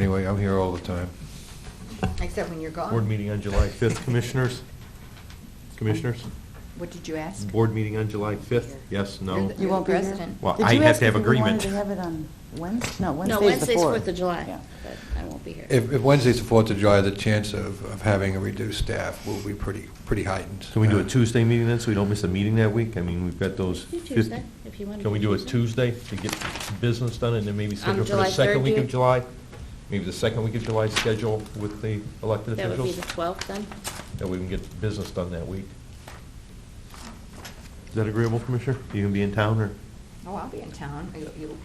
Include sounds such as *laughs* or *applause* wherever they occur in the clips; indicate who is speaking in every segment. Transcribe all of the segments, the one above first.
Speaker 1: Anyway, I'm here all the time.
Speaker 2: Except when you're gone.
Speaker 3: Board
Speaker 4: Oh.
Speaker 3: meeting on July 5th, commissioners? Commissioners?
Speaker 2: What did you ask?
Speaker 3: Board meeting on July 5th? Yes,
Speaker 2: You're
Speaker 3: no?
Speaker 2: the-
Speaker 5: You won't be here?
Speaker 2: President.
Speaker 3: Well,
Speaker 5: Did
Speaker 3: I
Speaker 5: you
Speaker 3: have
Speaker 5: ask
Speaker 3: to have
Speaker 5: if we wanted
Speaker 3: agreement.
Speaker 5: to have it on Wednesday? No,
Speaker 4: No,
Speaker 5: Wednesday's the
Speaker 4: Wednesday's
Speaker 5: 4th.
Speaker 4: Fourth of July,
Speaker 5: Yeah.
Speaker 4: but I won't be here.
Speaker 1: If if Wednesday's the 4th of July, the chance of of having a reduced staff will be pretty, pretty heightened.
Speaker 3: Can we do a
Speaker 1: Uh,
Speaker 3: Tuesday meeting then, so we don't miss a meeting that week? I mean, we've got those.
Speaker 4: Do
Speaker 3: 50
Speaker 4: Tuesday, if you want to.
Speaker 3: Can we do it Tuesday to get business done and then maybe schedule for the
Speaker 4: Um, July
Speaker 3: second
Speaker 4: 3rd,
Speaker 3: week
Speaker 4: do
Speaker 3: of
Speaker 4: it?
Speaker 3: July? Maybe the second week of July schedule with the elected
Speaker 4: That would be
Speaker 3: officials?
Speaker 4: the twelfth then?
Speaker 3: That we can get business done that week. Is that agreeable, Commissioner? You can be in town or?
Speaker 2: Oh, I'll be in town. You- You,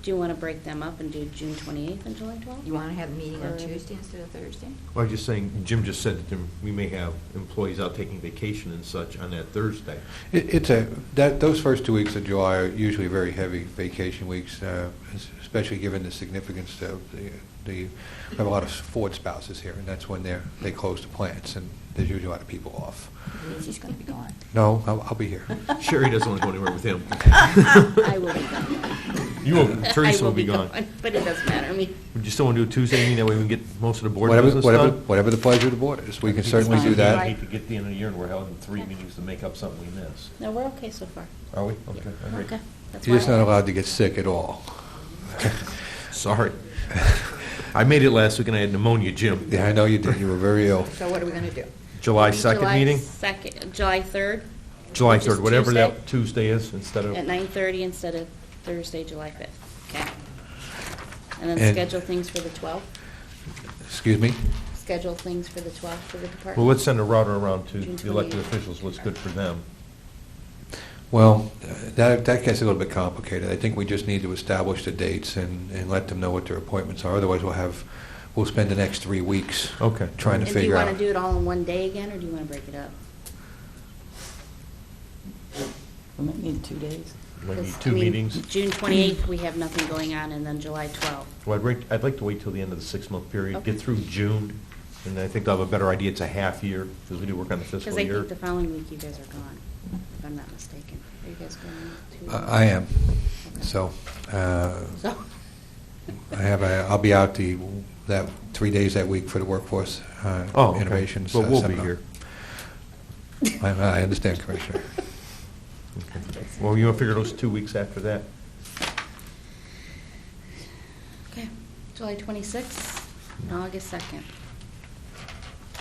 Speaker 4: Do you want to break them up and do June twenty-eighth and July twelfth?
Speaker 2: you want to have a meeting on
Speaker 4: Or-
Speaker 2: Tuesday instead of Thursday?
Speaker 3: Well, I'm just saying, Jim just said that there- we may have employees out taking vacation and such on that Thursday.
Speaker 1: It- It's a, that, those first two weeks of July are usually very heavy vacation weeks, uh, es- especially given the significance of the, the- we have a lot of Ford spouses here, and that's when they're, they close the plants, and there's usually a lot of people off.
Speaker 2: Lindsay's going to be gone.
Speaker 1: No, I'll I'll be here.
Speaker 3: Sherry doesn't want to go anywhere with him.
Speaker 4: I will be gone.
Speaker 3: *laughs* You will- Teresa
Speaker 4: I
Speaker 3: will be gone.
Speaker 4: But it doesn't matter, I mean,
Speaker 3: Would you still want to do a Tuesday meeting, that way we can get most of the board
Speaker 1: Whatever,
Speaker 3: business
Speaker 1: whatever,
Speaker 3: done?
Speaker 1: whatever the pleasure of the board is, we can
Speaker 5: It's
Speaker 1: certainly
Speaker 5: fine.
Speaker 1: do
Speaker 3: I
Speaker 1: that.
Speaker 3: hate to get to the end of the year and we're having three meetings to make up something we missed.
Speaker 4: no, we're okay so far.
Speaker 3: Are we?
Speaker 4: Yeah,
Speaker 3: Okay.
Speaker 4: we're Okay. That's
Speaker 1: You're just
Speaker 4: why I-
Speaker 1: not allowed to get sick at all.
Speaker 3: Sorry. *laughs* I made it last week and I had pneumonia, Jim.
Speaker 1: Yeah, I know you did, you were very ill.
Speaker 2: So what are we going to do?
Speaker 3: July 2nd meeting?
Speaker 4: July second, July third?
Speaker 3: July
Speaker 4: which is
Speaker 3: 3rd, whatever that Tuesday is, instead of,
Speaker 4: At nine-thirty instead of Thursday, July fifth, okay? And
Speaker 1: And-
Speaker 4: then schedule things for the twelfth,
Speaker 1: Excuse me?
Speaker 4: schedule things for the twelfth for the department.
Speaker 3: well, let's send a router around to
Speaker 4: June
Speaker 3: the elected
Speaker 4: 28th.
Speaker 3: officials, what's good for them.
Speaker 1: Well, uh, that, that gets a little bit complicated. I think we just need to establish the dates and, and let them know what their appointments are. Otherwise, we'll have, we'll spend the next three weeks
Speaker 3: Okay.
Speaker 1: trying to
Speaker 4: And do you
Speaker 1: figure
Speaker 4: want to
Speaker 1: out.
Speaker 4: do it all in one day again, or do you want to break it up?
Speaker 5: We might need two days.
Speaker 3: We need
Speaker 4: 'Cause, I
Speaker 3: two
Speaker 4: mean,
Speaker 3: meetings.
Speaker 4: June 28th, we have nothing going on, and then July 12th.
Speaker 3: Well, I'd like, I'd like to wait till the end of the six-month period,
Speaker 4: Okay.
Speaker 3: get through June, and I think they'll have a better idea, it's a half year, because we do work on the
Speaker 4: Because
Speaker 3: fiscal
Speaker 4: I
Speaker 3: year.
Speaker 4: think the following week you guys are gone, if I'm not mistaken. Are you guys going to?
Speaker 1: I I am, so, uh,
Speaker 4: So,
Speaker 1: I have, a- I'll be out the, that, three days that week for the workforce uh,
Speaker 3: Oh, okay.
Speaker 1: innovations.
Speaker 3: But
Speaker 1: uh,
Speaker 3: we'll be
Speaker 1: seminar.
Speaker 3: here.
Speaker 1: I I understand, Commissioner.
Speaker 3: Okay. Well, you want to figure those two weeks after that?
Speaker 4: okay, July 26th and August 2nd.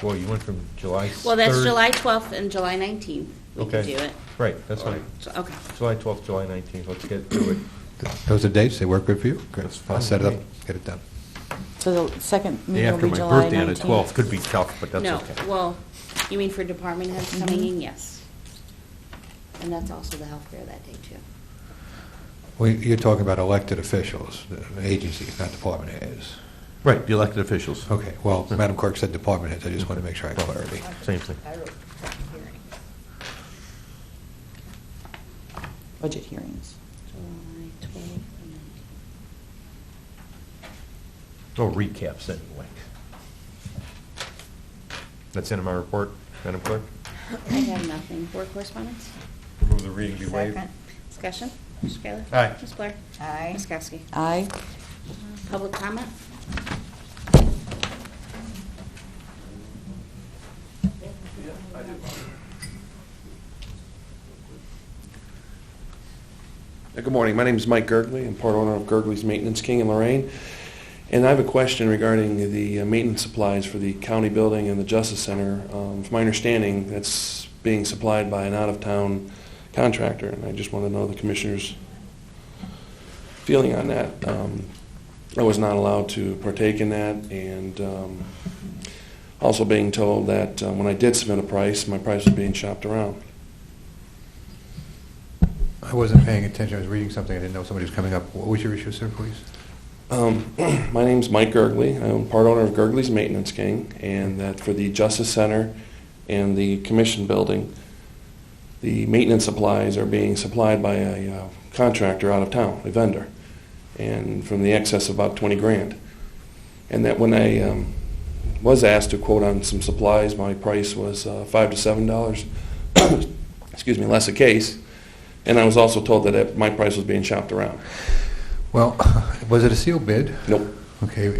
Speaker 3: Well, you went from July 3rd.
Speaker 4: Well, that's July 12th and July 19th. We can
Speaker 3: Okay.
Speaker 4: do it.
Speaker 3: Right, that's fine.
Speaker 4: So, Okay.
Speaker 3: July 12th, July 19th, let's get to it.
Speaker 1: Those are dates, they work good for you? Good.
Speaker 3: That's fine
Speaker 1: I'll set it
Speaker 3: with
Speaker 1: up,
Speaker 3: me.
Speaker 1: get it done.
Speaker 5: So the second
Speaker 3: Day
Speaker 5: meeting will
Speaker 3: after
Speaker 5: be
Speaker 3: my
Speaker 5: July 19th.
Speaker 3: birthday on the 12th, could be tough, but that's
Speaker 4: No,
Speaker 3: okay.
Speaker 4: well, you mean for department heads coming
Speaker 5: Mhm.
Speaker 4: in, yes. Mm-hmm. And that's also the health fair that day, too.
Speaker 1: Well, you're talking about elected officials, uh, agencies, not department heads.
Speaker 3: Right, the elected officials.
Speaker 1: Okay, well, Madam Clerk said department heads, I just want to make sure I had clarity.
Speaker 3: Same thing.
Speaker 2: I wrote public hearing.
Speaker 5: Budget hearings.
Speaker 4: July 12th and 19th.
Speaker 3: No recaps, anyway. That's in my report, Madam Clerk.
Speaker 4: I have nothing. Board correspondence?
Speaker 3: Move the reading be waived.
Speaker 2: Second.
Speaker 4: Discussion? Mr. Kayla?
Speaker 3: Aye.
Speaker 4: Ms. Blair?
Speaker 2: Aye.
Speaker 4: Ms. Kowski?
Speaker 5: Aye.
Speaker 4: Public comment?
Speaker 6: Uh, Good morning. My name is Mike Gergley. I'm part owner of Gergley's Maintenance King in Lorraine. And I have a question regarding the uh, maintenance supplies for the county building and the Justice Center. Um, From my understanding, that's being supplied by an out-of-town contractor, and I just want to know the commissioner's feeling on that. Um, I was not allowed to partake in that, and um, also being told that uh, when I did submit a price, my price was being shopped around.
Speaker 1: I wasn't paying attention, I was reading something, I didn't know somebody was coming up. What was your issue, sir, please?
Speaker 6: Um, *clears throat* My name's Mike Gergley. I'm part owner of Gergley's Maintenance King, and that for the Justice Center and the Commission Building, the maintenance supplies are being supplied by a uh, contractor out of town, a vendor, and from the excess of about 20 grand. And that when I um, was asked to quote on some supplies, my price was uh, 5 to $7, *coughs* excuse me, less a case, and I was also told
Speaker 1: *laughs*
Speaker 6: that uh, my price was being shopped around.
Speaker 1: Well, was it a sealed bid?
Speaker 6: Nope.
Speaker 1: Okay,